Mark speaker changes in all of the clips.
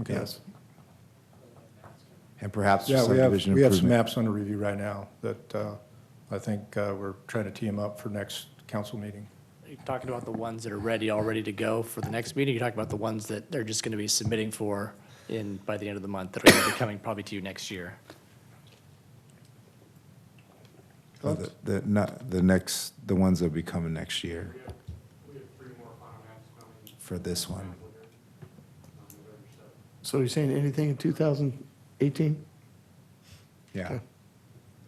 Speaker 1: Okay.
Speaker 2: yes. And perhaps
Speaker 1: Yeah, we have,
Speaker 2: subdivision
Speaker 1: we have some
Speaker 2: improvement.
Speaker 1: maps under review right now that uh, I think uh, we're trying to tee 'em up for next council meeting.
Speaker 3: You're talking about the ones that are ready, all ready to go for the next meeting. You're talking about the ones that they're just going to be submitting for in, by the end of the month, that are going to be coming probably to you next year.
Speaker 2: Uh, The, the, not, the next, the ones that'll be coming next year
Speaker 4: We have three more final maps coming
Speaker 2: for this one.
Speaker 4: later, on November seventh.
Speaker 5: So you're saying anything in 2018?
Speaker 2: Yeah.
Speaker 5: Okay.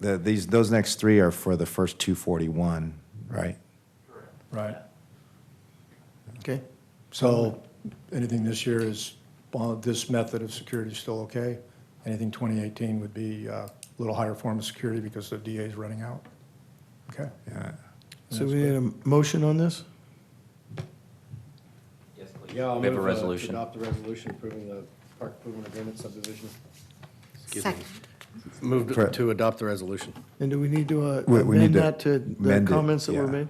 Speaker 2: The, these, those next three are for the first two forty-one, right?
Speaker 1: Right.
Speaker 5: Okay.
Speaker 1: So anything this year is, uh, this method of security is still okay. Anything 2018 would be uh, a little higher form of security because the DA is running out. Okay.
Speaker 2: Yeah.
Speaker 5: So we need a motion on this?
Speaker 6: Yeah, I'll
Speaker 7: We have a
Speaker 6: move, uh, to
Speaker 7: resolution.
Speaker 6: Adopt the resolution approving the park improvement agreement subdivision.
Speaker 8: Second.
Speaker 2: Correct.
Speaker 6: Move to adopt the resolution
Speaker 5: And do we need to uh,
Speaker 2: We- we need
Speaker 5: amend
Speaker 2: to
Speaker 5: that to the
Speaker 2: amend it,
Speaker 5: comments that were
Speaker 2: yeah.
Speaker 5: made?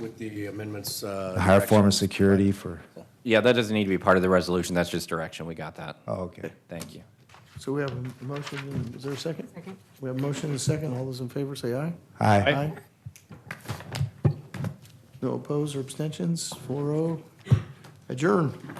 Speaker 6: with the amendments. uh,
Speaker 2: A higher form of
Speaker 6: direction.
Speaker 2: security for,
Speaker 7: Yeah, that doesn't need to be part of the resolution. That's just direction. We got that.
Speaker 2: oh, okay.
Speaker 7: Thank you.
Speaker 5: So we have a motion, and- is there a second?
Speaker 8: Second.
Speaker 5: We have a motion and a second. All those in favor say aye.
Speaker 2: Hi.
Speaker 5: Aye. No opposed or abstentions? 4-0. oh. Adjourn.